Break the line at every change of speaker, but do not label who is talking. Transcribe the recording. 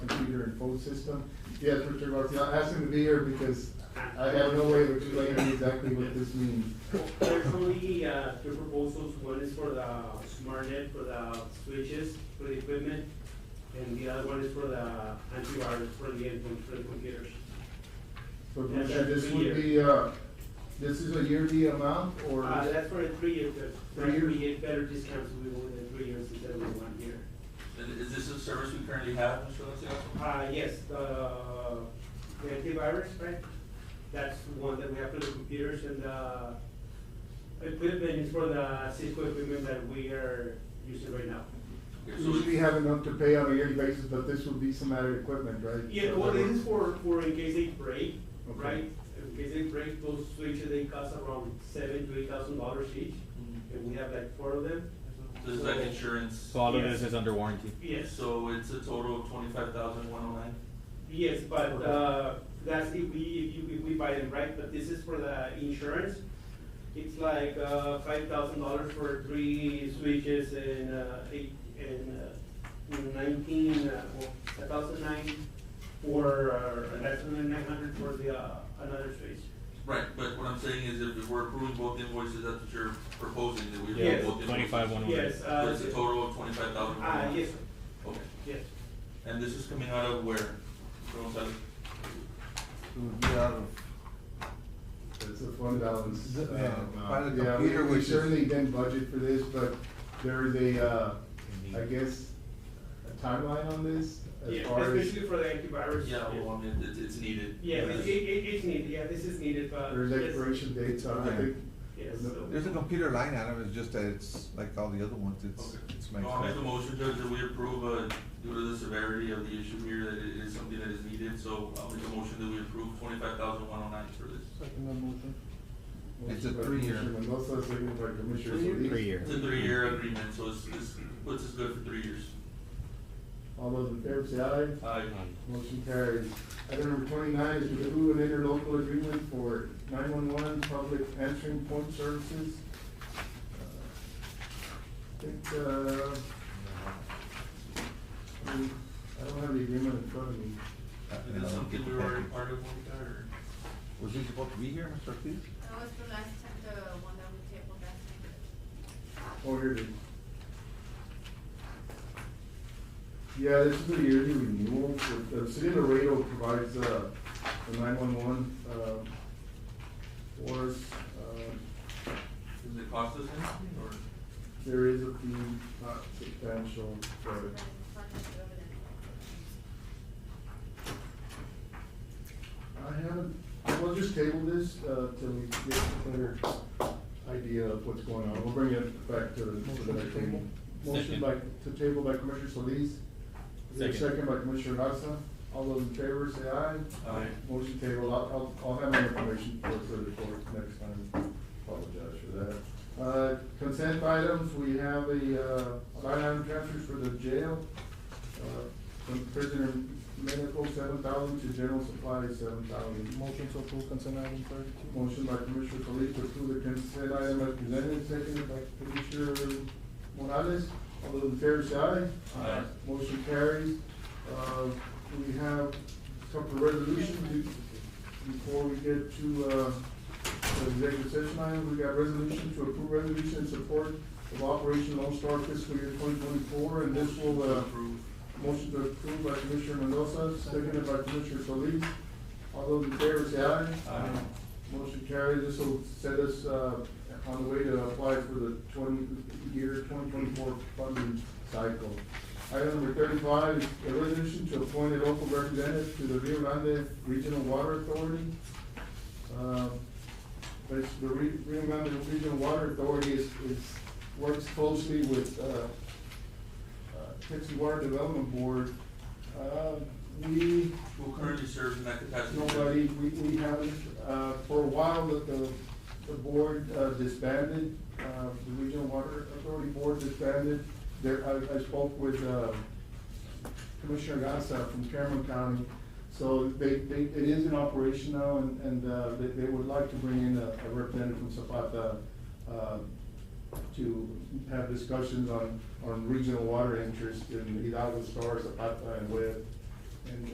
and phone system. Yes, Richard Garcia, I asked him to be here because I have no way of explaining exactly what this means.
There's only uh, two proposals, one is for the smart net for the switches, for the equipment, and the other one is for the antivirus for the endpoint, for the computers.
So
Yeah,
Richard, this
that's
would
a
be, uh, this is a yearly amount or?
Uh, That's for a three-year, but
Three years?
we get better discounts we will in three years instead of one year.
And Is this a service we currently have, Mr. Alexia?
Uh, Yes, the the antivirus, right? That's one that we have for the computers and the equipment is for the Cisco equipment that we are using right now.
Okay,
We
so
would be
we-
having enough to pay on a yearly basis, but this would be some added equipment, right?
Yeah, well, this is for, for in case they break,
Okay.
right? In case they break, those switches, they cost around seven to eight thousand dollars each, and we have like four of them.
This is Mm-hmm. like insurance.
So all of this
Yes.
is under warranty.
Yes,
So it's a total of twenty-five thousand one oh nine?
yes, but, uh, that's if we, if you, if we buy them, right? But this is for the insurance. It's like, uh, five thousand dollars for three switches and, uh, eight, and, uh, nineteen, uh, well, a thousand nine for, uh, that's nine hundred for the, uh, another switch.
Right, but what I'm saying is if we're approving both invoices, that's what you're proposing, that we
Yes.
approve both invoices?
Twenty-five one one.
Yes,
So
uh,
it's a total of twenty-five thousand? oh
ah, yes,
Okay,
yes.
and this is coming out of where? Mr. Gonzalez?
It would be out of-
It's a fund balance.
Yeah,
uh,
by
yeah,
the
we-
computer, which
We
is-
certainly didn't budget for this, but there is a, uh, I guess, a timeline on this as
Yeah,
far as,
especially for the antivirus.
Yeah, well, I mean, it's, it's needed.
Yeah, it, it, it- it's needed, yeah, this is needed, but.
there's
yes,
expiration dates on, I
Okay.
think.
Yes,
no-
so-
There's a computer line item, it's just that it's like all the other ones, it's,
Okay.
it's
No, I'll make a
maximum.
motion, Judge, that we approve, uh, due to the severity of the issue here, that it is something that is needed, so uh, I'll make a motion that we approve twenty-five thousand one oh nine for this.
It's a
Motion by
three-year.
Commissioner Mendoza, second by Commissioner Solis.
Three years.
It's a three-year agreement, so it's, this puts us good for three years. Uh,
All those in favor say aye.
Aye.
Motion carries. Item number twenty-nine is to approve an interlocal agreement for nine-one-one public answering point services. Uh, I think, uh, I mean, I don't have the agreement in front of me.
Is this something we were already part of, Monica, or?
Uh, Was he supposed to be here, Mr. Ortiz?
That was the last time, the one that we tabled last time.
Oh, here it is. Yeah, this is a yearly renewal. The- The city of Laredo provides, uh, the nine-one-one, uh, for us. Uh,
Does it cost us anything, or?
There is a fee, not substantial, but I haven't, we'll just table this, uh, till we get a clearer idea of what's going on. We'll bring it back to the, to the next table. Motion by, to table by Commissioner Solis. Is there a
Second.
Second by Commissioner Garza. All those in favor say aye.
Aye.
Motion table, I'll, I'll, I'll have my information for the report next time. Apologize for that. Uh, consent items, we have a, uh, line item transfers for the jail. Uh, From prisoner medical, seven thousand, to general supplies, seven thousand. Motion to approve consent item thirty-two. Motion by Commissioner Solis to approve the consent item as presented, seconded by Commissioner Morales. All those in favor say aye.
Aye.
Motion carries. Uh, we have a couple of resolutions be- before we get to, uh, the executive session item. We got resolution to approve resolution in support of Operation Lone Star fiscal year twenty twenty-four, and this will, uh,
Approve.
motion to approve by Commissioner Mendoza, seconded by Commissioner Solis. All those in favor say aye.
Aye.
Motion carries. This will set us, uh, on the way to apply for the twenty, year twenty twenty-four funding cycle. Item number thirty-five, is a resolution to appoint a local representative to the Rio Grande Regional Water Authority. Uh, But the Re- Rio Grande Regional Water Authority is, is, works closely with, uh, uh, Texas Water Development Board, uh, we.
Who currently serves in that capacity?
Nobody, we, we haven't, uh, for a while, the, the, the board uh, disbanded, uh, the Regional Water Authority Board disbanded. There, I, I spoke with, uh, Commissioner Gasa from Cameron County. So they, they, it is in operation now and, and, uh, they, they would like to bring in a a representative from Zapata, uh, to have discussions on, on regional water interest in Hidalgo Star, Zapata and Webb. And